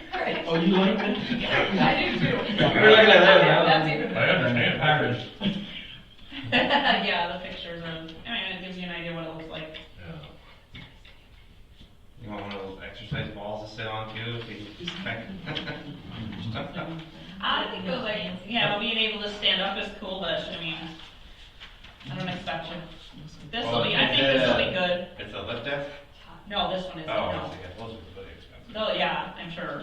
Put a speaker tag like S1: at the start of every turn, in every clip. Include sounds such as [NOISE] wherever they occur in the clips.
S1: you like it?
S2: I do too.
S3: You're looking at that now.
S2: That's even
S1: I understand Paris.
S2: Yeah, the pictures of, and it gives you an idea what it looks like.
S3: You want one of those exercise balls to sit on too, if you just back-
S2: I think it was like, yeah, being able to stand up is cool, but I mean, I don't expect you. This will be, I think this will be good.
S3: It's a lift desk?
S2: No, this one
S3: Oh,
S2: isn't,
S3: I
S2: no.
S3: see, those are really expensive. Oh,
S2: No, yeah, I'm sure.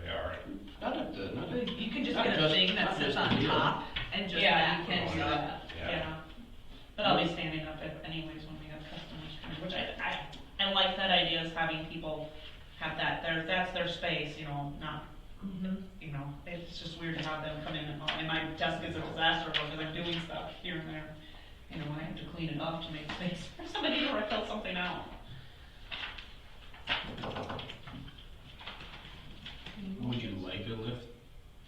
S3: They are.
S4: Not at the, not at.
S5: You can just
S4: not
S5: get a
S4: just-
S5: thing
S4: not
S5: that sits
S4: just
S5: on
S4: the
S5: top and just
S2: Yeah,
S5: that
S2: you
S5: can
S2: can do that,
S3: Yeah.
S2: yeah. But I'll be standing up if anyways when we have customers coming, which I, I, I like that idea is having people have that, their, that's their space, you know, not, you know, it's just weird to have them come in and, all- and my desk is a disaster because I'm doing stuff here and there. You know, I have to clean it up to make space for [LAUGHS] somebody or I fill something out.
S4: Would you like a lift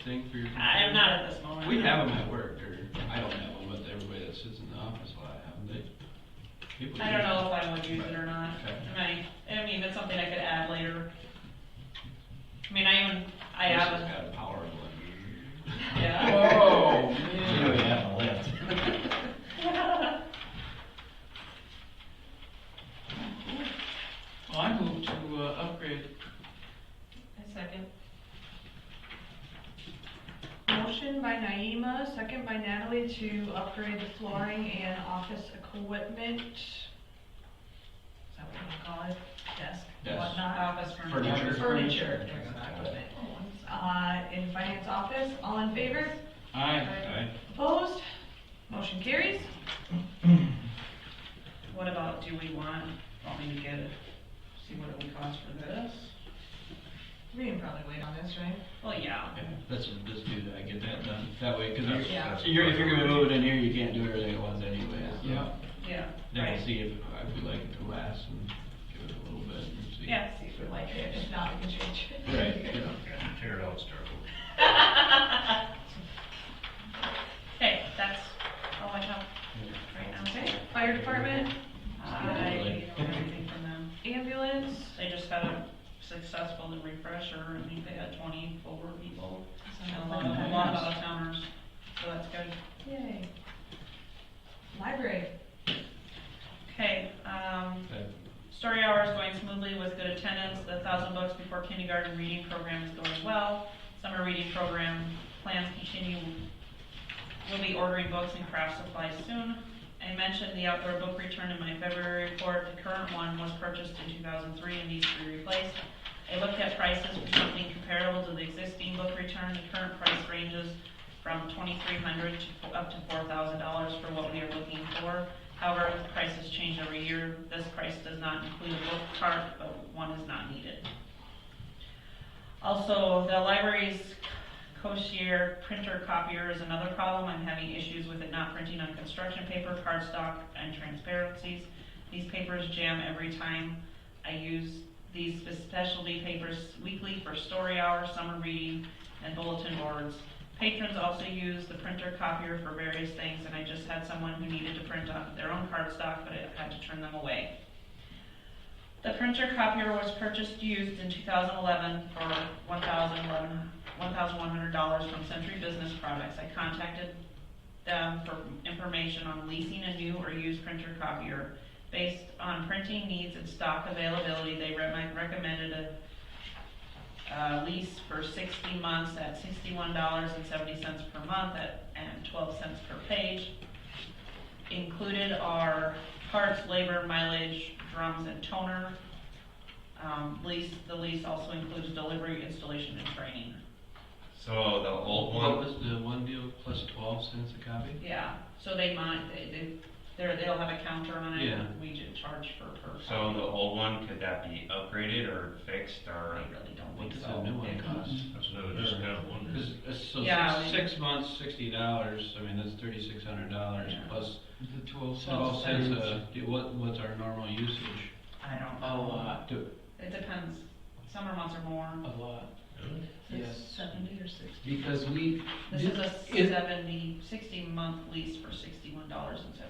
S4: thing for your?
S2: I am not at this moment.
S4: We have them at work, or I don't have one, but everybody that sits in the office, a lot of them, they. people
S2: I don't
S4: use
S2: know if I would use it or not. I, I mean, that's something I could add later. I mean, I even, I
S4: This
S2: have
S4: has
S2: a,
S4: got a power one.
S2: yeah.
S4: Oh,
S1: You know, you have a lift.
S4: Well, I moved to uh, upgrade.
S5: A second. Motion by Naima, second by Natalie to upgrade the flooring and office equipment. Is that what you call it? Desk,
S4: Desk.
S5: whatnot?
S2: Office
S4: Furniture.
S2: furniture.
S5: Furniture. there's not equipment. Uh, in finance office, all in favor?
S4: Aye.
S5: Opposed? Motion carries.
S2: What about, do we want, want me to get, it? see what it would cost for this?
S5: We can probably wait on this, right?
S2: Well, yeah.
S4: Yeah, Let's just do that, get that done, that way, because
S3: That's-
S4: you're,
S5: Yeah.
S3: that's-
S4: you're, if you're gonna move it in here, you can't do everything at once anyway. so.
S3: Yeah.
S2: Yeah,
S4: Then
S2: right.
S4: we'll see if, if we like it to last and give it a little bit and see.
S2: Yeah.
S5: See if we like it, if not, we can change it.
S4: Right, yeah.
S3: Yeah, Tear it out, start over.
S2: Hey, that's all I have right now.
S5: Okay, fire department,
S2: I don't have anything from them.
S5: ambulance,
S2: They just had a successful refresher, I think they had twenty over people, and a lot of, a lot of out of towners, so that's good.
S5: yay. Library,
S2: Okay, um,
S4: Okay.
S2: story hour is going smoothly with good attendance, the thousand books before kindergarten reading program is going well. Summer reading program plans continue, we'll be ordering books and craft supplies soon. I mentioned the outdoor book return in my February report, the current one was purchased in two thousand three and needs to be replaced. I looked at prices for something comparable to the existing book return, the current price ranges from twenty-three hundred to up to four thousand dollars for what we are looking for. However, prices change every year. This price does not include a book cart, but one is not needed. Also, the library's Koshier printer copier is another problem. I'm having issues with it not printing on construction paper, cardstock, and transparencies. These papers jam every time. I use these specialty papers weekly for story hour, summer reading, and bulletin boards. Patrons also use the printer copier for various things, and I just had someone who needed to print on their own cardstock, but I had to turn them away. The printer copier was purchased used in 2011 for $1,011 $1,100 from Century Business Products. I contacted them for information on leasing a new or used printer copier. Based on printing needs and stock availability, they re- recommended a uh, lease for sixty months at sixty-one dollars and seventy cents per month at, and twelve cents per page. Included are parts, labor, mileage, drums, and toner. Um, lease, the lease also includes delivery, installation, and training.
S3: So the old
S4: What
S3: one,
S4: was the one deal plus twelve cents a copy?
S2: Yeah, so they might, they, they, they're, they'll have a counter on it,
S4: Yeah.
S2: and we just charge for per.
S3: so the old one, could that be upgraded or fixed or?
S2: I really don't
S4: What
S2: think
S4: does
S2: so.
S4: a new one cost?
S6: That's what I was just kind of wondering.
S4: Because, uh, so
S2: Yeah,
S4: six-
S2: we-
S4: six months, sixty dollars, I mean, that's thirty-six hundred dollars
S2: Yeah.
S4: plus
S1: The twelve
S4: twelve cents a, what, what's our normal usage?
S2: I don't
S4: A
S2: know.
S4: lot.
S2: It depends. Summer months are more.
S4: A lot.
S1: Yes.
S2: Seventy or sixty?
S1: Because we,
S2: This is a
S1: Is-
S2: seventy, sixty-month lease for sixty-one dollars and seventy